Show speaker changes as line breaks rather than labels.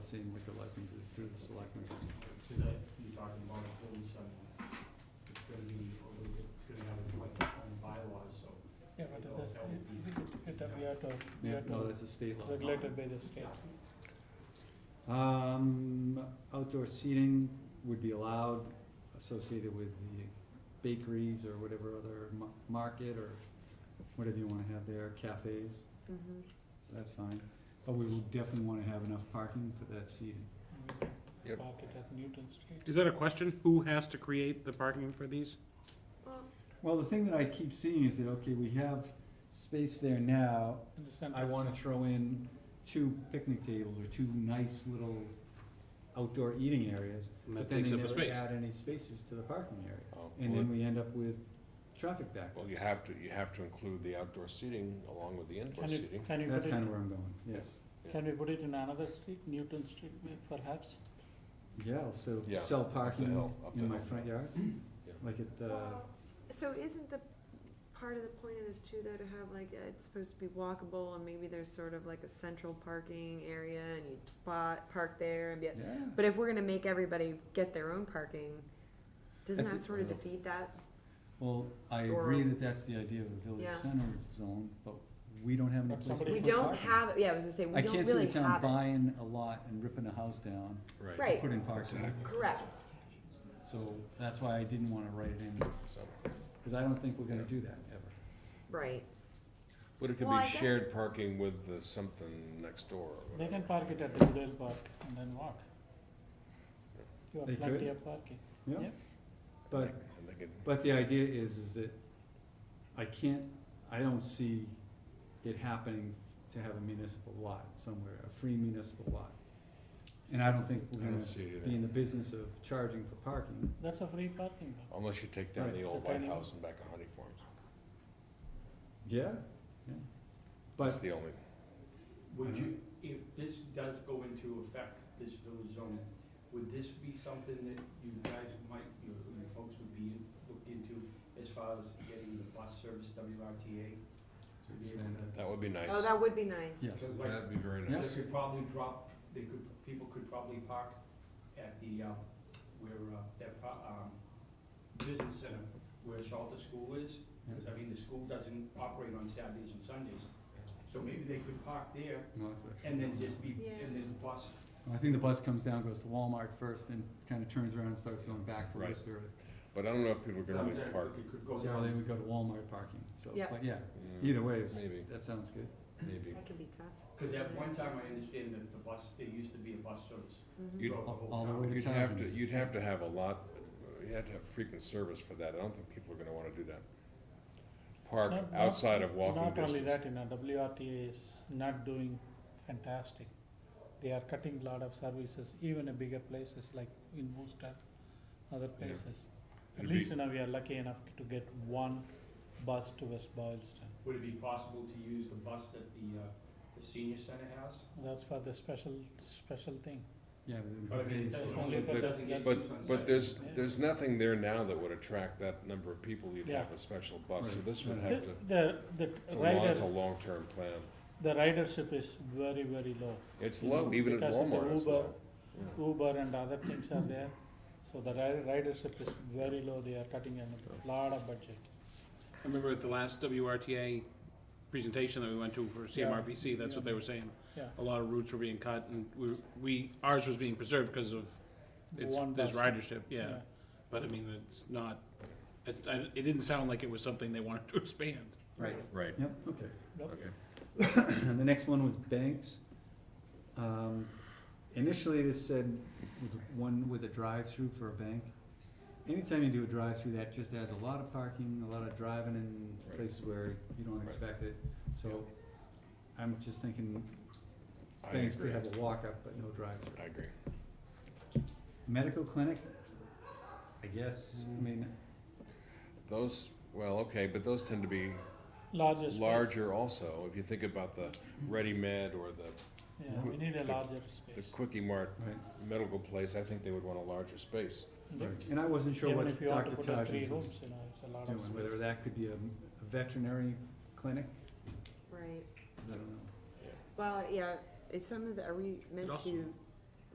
seeing liquor licenses through the selectmen.
So that, you're talking about forty seven, it's gonna be, over- it's gonna have its like own bylaws, so.
Yeah, but it is, it, it, it, we have to, we
Yeah,
have
No,
to
that's a state law.
regulated by the state.
Um, outdoor seating would be allowed associated with the bakeries or whatever other ma- market or whatever you wanna have there, cafes,
Mm-hmm.
so that's fine. But we would definitely wanna have enough parking for that seating.
Yep.
Park it at Newton Street.
Is that a question? Who has to create the parking for these?
Well, the thing that I keep seeing is that, okay, we have space there now,
In the center.
I wanna throw in two picnic tables or two nice little outdoor eating areas,
And that
but then
takes
they
up a
never
space.
add any spaces to the parking area.
Oh,
And
well,
then we end up with traffic back.
Well, you have to, you have to include the outdoor seating along with the indoor
Can you,
seating.
can you
That's
put
kind
it,
of where I'm going, yes.
can we put it in another street, Newton Street may- perhaps?
Yeah, I'll sell,
Yeah,
sell parking
hill, up the
in my
hill.
front yard,
Yeah.
like at, uh,
So isn't the, part of the point of this too, though, to have like, uh, it's supposed to be walkable and maybe there's sort of like a central parking area and you spot, park there and be,
yeah.
but if we're gonna make everybody get their own parking, doesn't
That's
that
it.
sort of defeat that?
Well, I
Or-
agree that that's the idea of a
Yeah.
village center zone, but we don't have any
But
place to
somebody-
We
put
don't
parking.
have, yeah, I was gonna say, we
I
don't
can't see
really
the town
have it.
buying a lot and ripping a house down to
Right.
put in parking,
Correct.
so that's why I didn't wanna write it in,
So-
cause I don't think we're gonna do that ever.
Right.
But it could
Well,
be
I guess-
shared parking with the something next door. or
They can
whatever.
park it at the Goodell Park and then walk. You
They
have plenty
could.
of parking.
Yeah,
Yeah.
but,
And they can-
but the idea is, is that I can't, I don't see it happening to have a municipal lot somewhere, a free municipal lot. And I don't think
I
we're
don't
gonna
see it
be in
either.
the business of charging for parking.
That's a free parking lot.
Unless you take down
Right,
the old
the
White
tiny-
House and back a Honey Farms.
Yeah, yeah.
That's
But,
the only,
Would you, if this does go into effect, this village zoning, would this be something that you guys might, you you folks would be looked into as far as getting the bus service, WRTA? to be able to-
that would be nice.
Oh, that would be nice.
Yes.
Like,
That'd be very
Yeah.
They
nice.
could probably drop, they could, people could probably park at the, um, where, uh, that, pro- um, business center, where Salter School is, because, I mean, the school doesn't operate on Saturdays and Sundays. So maybe they could park there
no, it's actually-
and then just be,
Yeah.
and then the bus.
I think the bus comes down, goes to Walmart first, then kinda turns around and starts going back to
Right.
Worcester.
But I don't know if people are gonna
um,
really
that
park.
It could go
So they
down.
would go to Walmart parking, so,
Yeah.
but yeah,
Mm,
either way, it's-
Maybe,
that sounds good.
Mm, maybe.
That could be tough.
Because at one time, I understand that the bus, there used to be a bus service
Mhm.
You'd-
throughout the whole
All the way
town.
to
You'd have to,
Townsend's.
you'd have to have a lot, you'd have to have frequent service for that. I don't think people are gonna wanna do that. Park
Not- not-
outside of walking
Not only
distance.
that, you know, WRTA is not doing fantastic. They are cutting a lot of services, even in bigger places like in Worcester, other places. At
It'd
least,
be-
you know, we are lucky enough to get one bus to West Boylston.
Would it be possible to use the bus that the, uh, the senior center has?
That's for the special, special thing.
Yeah, but then.
But I mean,
it's-
that's
That's
only if
only
it
for
doesn't
the-
get. used on
But, but
Saturday.
there's,
Yeah.
there's nothing there now that would attract that number of people. You'd
Yeah.
have a special bus, so
Right.
this would
The-
The,
have to,
the, the
it's a long,
rider,
it's a long-term plan.
the ridership is very, very low.
It's
You
low,
know,
even at
because of the
Walmart it's
Uber.
low.
Uber and other things are there, so the ri- ridership is very low. They are cutting a lot of budget.
I remember at the last WRTA presentation that we went to for CMRPC, that's what they were saying.
Yeah.
A lot of routes were being cut and we, we, ours was being preserved because of, it's,
One
there's
bus.
ridership, yeah. But I mean, it's not, it, I- it didn't sound like it was something they wanted to expand.
Right,
Right,
yep, okay.
Yep.
okay.
And the next one was banks. Um, Initially, this said with- one with a drive-through for a bank. Anytime you do a drive-through, that just adds a lot of parking, a lot of driving in
Right.
places where you don't
Right.
expect it. So I'm just thinking
I
banks could
agree,
have a walk-up but no drive-through.
I agree.
Medical clinic, I guess,
Mm.
I mean,
Those, well, okay, but those tend to be
Larger space.
larger also. If you think about the Ready Med or the,
Yeah, we need a
the-
larger
the
space.
Quickie Mart
right,
medical place, I think they would want a larger space.
right. And I wasn't sure
Even
what
if you want to
Dr.
put up three
Tajik
rooms,
was
you know, it's a lot of
doing, whether
space.
that could be a a veterinary clinic,
Right.
I don't know.
Well, yeah, is some of the, are we meant
also-
to